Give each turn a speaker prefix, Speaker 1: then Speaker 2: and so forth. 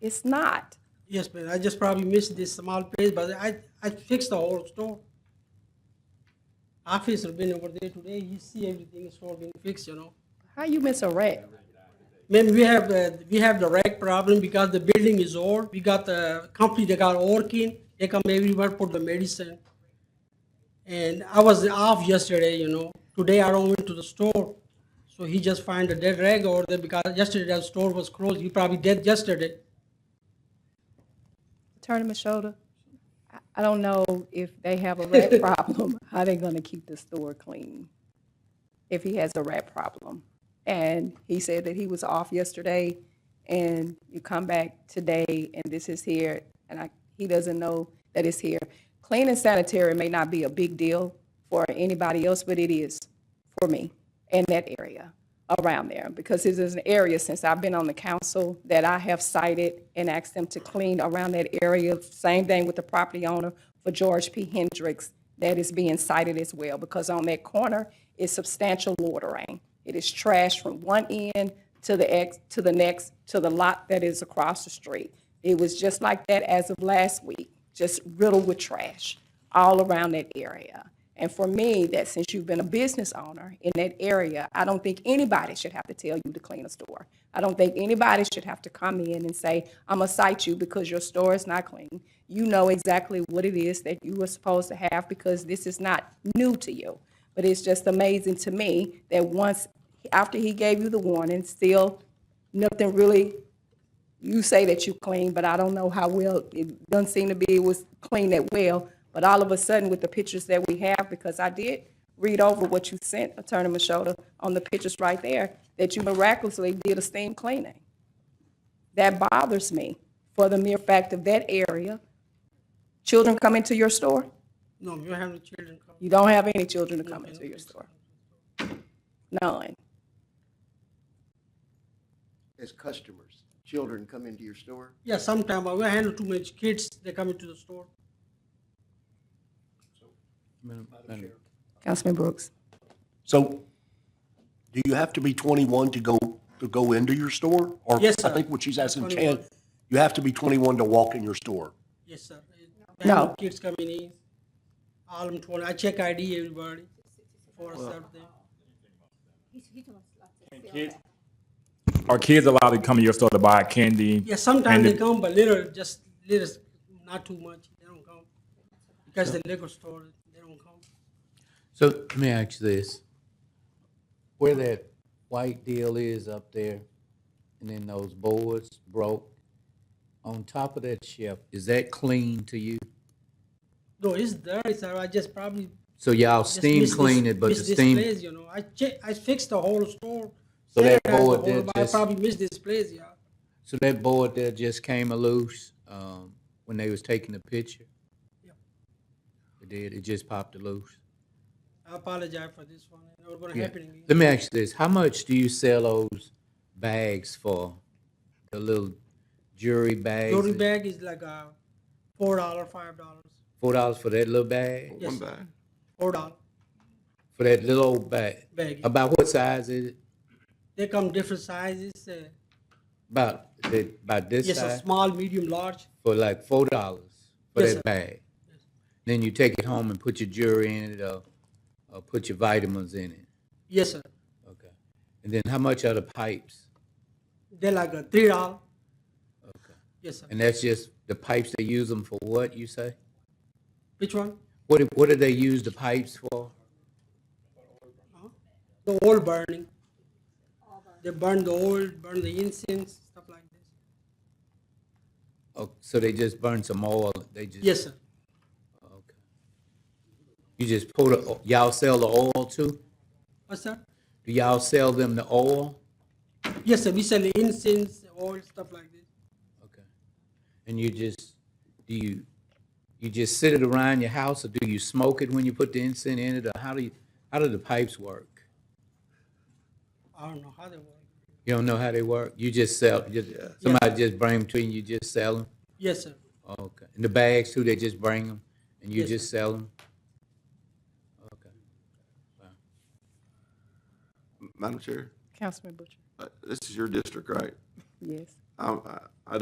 Speaker 1: It's not.
Speaker 2: Yes, ma'am. I just probably missed this small place, but I, I fixed the whole store. Officer been over there today, he see everything is all been fixed, you know.
Speaker 1: How you miss a wreck?
Speaker 2: Man, we have, uh, we have the rag problem because the building is old. We got the company that got working, they come everywhere for the medicine. And I was off yesterday, you know. Today I don't went to the store. So he just find a dead rag over there because yesterday the store was closed. He probably dead yesterday.
Speaker 1: Attorney Mashoda, I- I don't know if they have a rat problem, how they gonna keep the store clean if he has a rat problem. And he said that he was off yesterday and you come back today and this is here and I, he doesn't know that it's here. Clean and sanitary may not be a big deal for anybody else, but it is for me in that area around there because it is an area since I've been on the council that I have cited and asked them to clean around that area. Same thing with the property owner for George P. Hendricks that is being cited as well because on that corner is substantial loitering. It is trash from one end to the ex, to the next, to the lot that is across the street. It was just like that as of last week, just riddled with trash all around that area. And for me, that since you've been a business owner in that area, I don't think anybody should have to tell you to clean a store. I don't think anybody should have to come in and say, I'm gonna cite you because your store is not clean. You know exactly what it is that you were supposed to have because this is not new to you. But it's just amazing to me that once, after he gave you the warning, still nothing really you say that you clean, but I don't know how well, it doesn't seem to be, it was clean that well. But all of a sudden with the pictures that we have, because I did read over what you sent, Attorney Machota, on the pictures right there, that you miraculously did a steam cleaning. That bothers me for the mere fact of that area. Children come into your store?
Speaker 2: No, you have the children come.
Speaker 1: You don't have any children to come into your store? None.
Speaker 3: as customers, children come into your store?
Speaker 2: Yeah, sometime I will handle too many kids, they come into the store.
Speaker 1: Councilman Brooks?
Speaker 4: So, do you have to be 21 to go, to go into your store? Or
Speaker 2: Yes,
Speaker 4: I
Speaker 2: sir.
Speaker 4: think what she's asking,
Speaker 2: 21.
Speaker 4: Chan, you have to be 21 to walk in your store.
Speaker 2: Yes, sir. They
Speaker 1: No.
Speaker 2: have Kids coming in, all them twenty, I check ID everybody for something.
Speaker 5: Are kids allowed to come to your store to buy candy?
Speaker 2: Yeah, sometimes
Speaker 5: And
Speaker 2: they
Speaker 5: the-
Speaker 2: come, but little, just little, not too much, they don't come. Because the liquor store, they don't come.
Speaker 6: So let me ask you this. Where that white deal is up there, and then those boards broke, on top of that shelf, is that clean to you?
Speaker 2: No, it's there, sir, I just probably.
Speaker 6: So y'all
Speaker 2: just
Speaker 6: steam
Speaker 2: miss this-
Speaker 6: clean it, but the
Speaker 2: miss this
Speaker 6: steam,
Speaker 2: place, You know, I check, I fixed the whole store.
Speaker 6: So
Speaker 2: sanitized
Speaker 6: that
Speaker 2: the
Speaker 6: board
Speaker 2: whole,
Speaker 6: did
Speaker 2: but I
Speaker 6: just-
Speaker 2: probably missed this place, yeah.
Speaker 6: so that board there just came a loose, um, when they was taking the picture?
Speaker 2: Yep.
Speaker 6: It did, it just popped it loose?
Speaker 2: I apologize for this one, it's not gonna
Speaker 6: Yeah.
Speaker 2: happen again.
Speaker 6: Let me ask you this, how much do you sell those bags for? The little jewelry bags?
Speaker 2: Jewelry bag is like uh four dollar, five dollars,
Speaker 6: Four dollars for that little bag?
Speaker 2: Yes.
Speaker 3: bag.
Speaker 2: four dollar
Speaker 6: For that little old bag?
Speaker 2: bag.
Speaker 6: About what size is it?
Speaker 2: They come different sizes. Uh,
Speaker 6: About, is it about this
Speaker 2: yes, a
Speaker 6: size?
Speaker 2: small, medium, large.
Speaker 6: For like four dollars for
Speaker 2: Yes, sir.
Speaker 6: that bag? Then you take it home and put your jewelry in it or, or put your vitamins in it?
Speaker 2: Yes, sir.
Speaker 6: Okay. And then how much are the pipes?
Speaker 2: They like a three dollar.
Speaker 6: Okay.
Speaker 2: Yes, sir.
Speaker 6: And that's just, the pipes, they use them for what, you say?
Speaker 2: Which one?
Speaker 6: What, do- what do they use the pipes for?
Speaker 2: The oil burning. They burn the oil, burn the incense, stuff like this.
Speaker 6: Oh, so they just burn some oil, they just?
Speaker 2: Yes, sir.
Speaker 6: Okay. You just pour the, o- y'all sell the oil too?
Speaker 2: What's that?
Speaker 6: Do y'all sell them the oil?
Speaker 2: Yes, sir. We sell the incense, oil, stuff like this.
Speaker 6: Okay. And you just, do you, you just sit it around your house or do you smoke it when you put the incense in it? Or how do you, how do the pipes work?
Speaker 2: I don't know how they work.
Speaker 6: You don't know how they work? You just sell, just, somebody just bring them to you and you just sell them?
Speaker 2: Yes, sir.
Speaker 6: Okay. And the bags too, they just bring them and you
Speaker 2: Yes,
Speaker 6: just sell them? Okay.
Speaker 7: Madam Chair,
Speaker 1: Councilman Butcher?
Speaker 7: uh, this is your district, right?
Speaker 1: Yes.
Speaker 7: I, I- I